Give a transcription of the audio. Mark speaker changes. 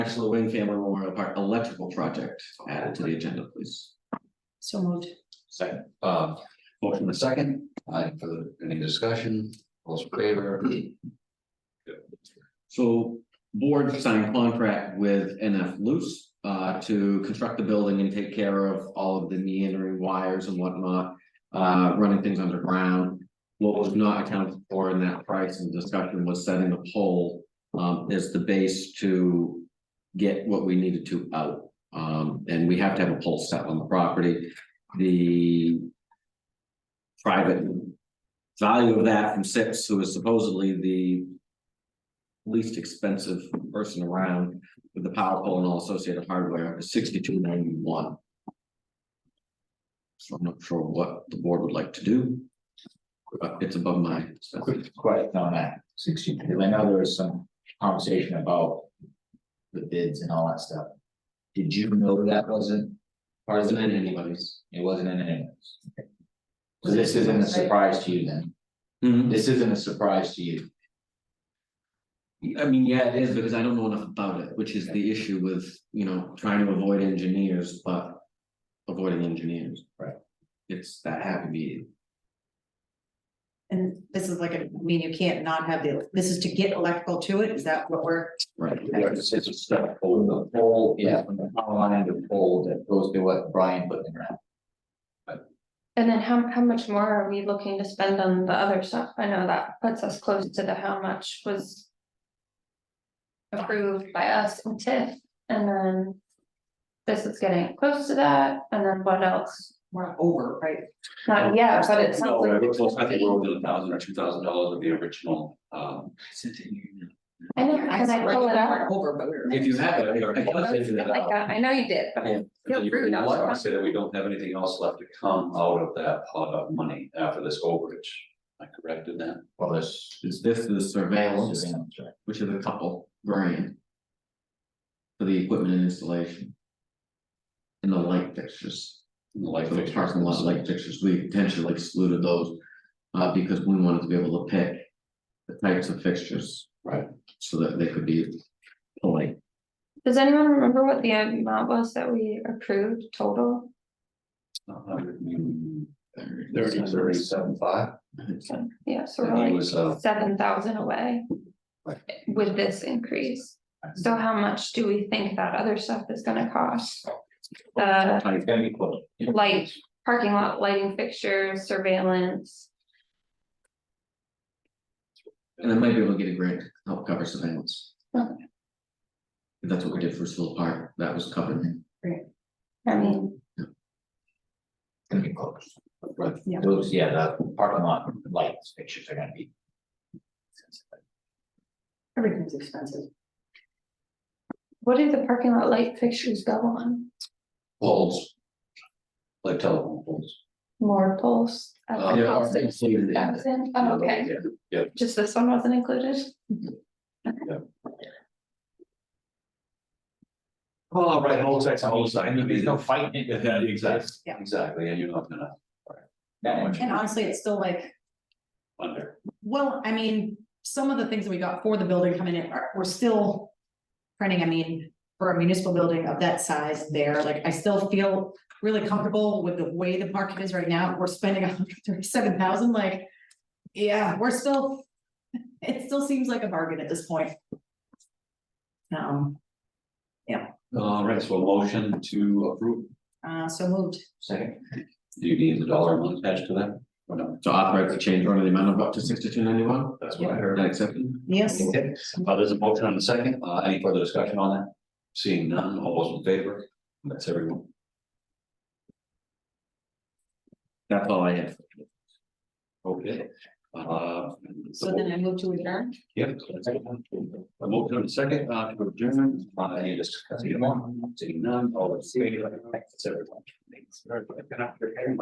Speaker 1: next to the Wing Family Memorial Park electrical project added to the agenda, please.
Speaker 2: So moved.
Speaker 3: Second, uh, motion in a second, I, for any discussion, all those in favor,
Speaker 1: So board signed contract with NF Loose uh to construct the building and take care of all of the meandering wires and whatnot. Uh, running things underground. What was not accounted for in that price and discussion was setting a pole um as the base to. Get what we needed to out, um, and we have to have a pole set on the property. The. Private. Value of that from Sips, who is supposedly the least expensive person around with the power pole and all associated hardware is sixty-two ninety-one. So I'm not sure what the board would like to do. Uh, It's above my. expense.
Speaker 4: Quick question on that sixteen, because I know there was some conversation about the bids and all that stuff. Did you know that wasn't,
Speaker 1: Or is it in anybody's?
Speaker 4: it wasn't in any? So this isn't a surprise to you then?
Speaker 1: I
Speaker 4: This isn't a surprise to you?
Speaker 1: mean, yeah, it is because I don't know enough about it, which is the issue with, you know, trying to avoid engineers, but avoiding engineers.
Speaker 4: Right.
Speaker 1: It's that happy medium.
Speaker 2: And this is like, a- I mean, you can't not have the, this is to get electrical to it, is that what we're,
Speaker 1: Right.
Speaker 4: It's a step pole, the pole, yeah, from the power line to the pole that goes to what Brian put in the ground.
Speaker 5: And then how, how much more are we looking to spend on the other stuff? I know that puts us close to the how much was. Approved by us and TIF, and then. This is getting close to that, and then what else?
Speaker 2: we're over, right?
Speaker 5: Not yet, but it sounds like.
Speaker 3: Oh, I think we're over a thousand or two thousand dollars of the original, um.
Speaker 5: I know, can I pull it up?
Speaker 2: We're Over, but we're.
Speaker 1: If you have it, I- I
Speaker 5: I
Speaker 1: can send you that out.
Speaker 5: know you did, but I feel rude, I was
Speaker 3: I say that we don't have anything else left to come out of that pot of money after this overage, I corrected that.
Speaker 4: Well, this.
Speaker 1: Is this the surveillance?
Speaker 4: Yeah, that's right.
Speaker 1: which is a couple grand. For the equipment and installation. And the light fixtures,
Speaker 3: And the
Speaker 1: like
Speaker 3: light
Speaker 1: the
Speaker 3: fixtures.
Speaker 1: parking lot light fixtures, we potentially excluded those. Uh, because we wanted to be able to pick the types of fixtures.
Speaker 3: Right.
Speaker 1: So that they could be polite.
Speaker 5: Does anyone remember what the amount was that we approved total?
Speaker 3: Thirty, thirty-seven, five.
Speaker 5: Yeah, so
Speaker 3: And he
Speaker 5: we're
Speaker 3: was, uh,
Speaker 5: like seven thousand away.
Speaker 3: Right.
Speaker 5: With this increase, so how much do we think that other stuff is gonna cost? The
Speaker 4: It's gonna be close.
Speaker 5: light, parking lot lighting fixtures, surveillance,
Speaker 1: And I might be able to get a grant to help cover surveillance.
Speaker 5: Okay.
Speaker 1: That's what we did for Silver Park, that was covered.
Speaker 5: I mean,
Speaker 4: It's gonna be close. Right,
Speaker 2: Yeah.
Speaker 4: those, yeah, the parking lot lights pictures are gonna be.
Speaker 2: Everything's expensive.
Speaker 5: what do the parking lot light fixtures go on?
Speaker 3: poles. Like telephone poles.
Speaker 5: More poles? at
Speaker 3: Uh,
Speaker 5: the
Speaker 1: Oh, Yeah, ours
Speaker 5: cost of
Speaker 1: included in that.
Speaker 5: 6,000? Oh, okay,
Speaker 3: Yeah,
Speaker 5: just this one wasn't included?
Speaker 3: Well, right, whole sex, whole side.
Speaker 4: There's no fighting it.
Speaker 3: Yeah, exactly,
Speaker 2: Yeah.
Speaker 3: exactly, and you're not gonna
Speaker 4: That much.
Speaker 2: And honestly, it's still like,
Speaker 3: under,
Speaker 2: well, I mean, some of the things that we got for the building coming in are, we're still. Printing, I mean, for a municipal building of that size there, like, I still feel really comfortable with the way the market is right now, we're spending hundred thirty-seven thousand, like. Yeah, we're still, it still seems like a bargain at this point. Um,
Speaker 3: all right, so a motion to approve,
Speaker 2: uh, so moved.
Speaker 3: second. Do you need the dollar amount attached to that, or no?
Speaker 1: To authorize the change order, in the amount of up to sixty-two ninety-one,
Speaker 3: That's what I heard.
Speaker 1: that accepted?
Speaker 2: Yes,
Speaker 3: Okay, uh, there's a motion on the second, uh, any further discussion on that? Seeing none, all those in favor, that's everyone.
Speaker 1: That's all I have.
Speaker 3: Okay, uh.
Speaker 2: so then I move to adjourn.
Speaker 3: Yep. A motion on the second, uh, to adjourn, uh, any discussion, seeing none, all those in favor, that's everyone. Thanks. Very good. Good night, everyone.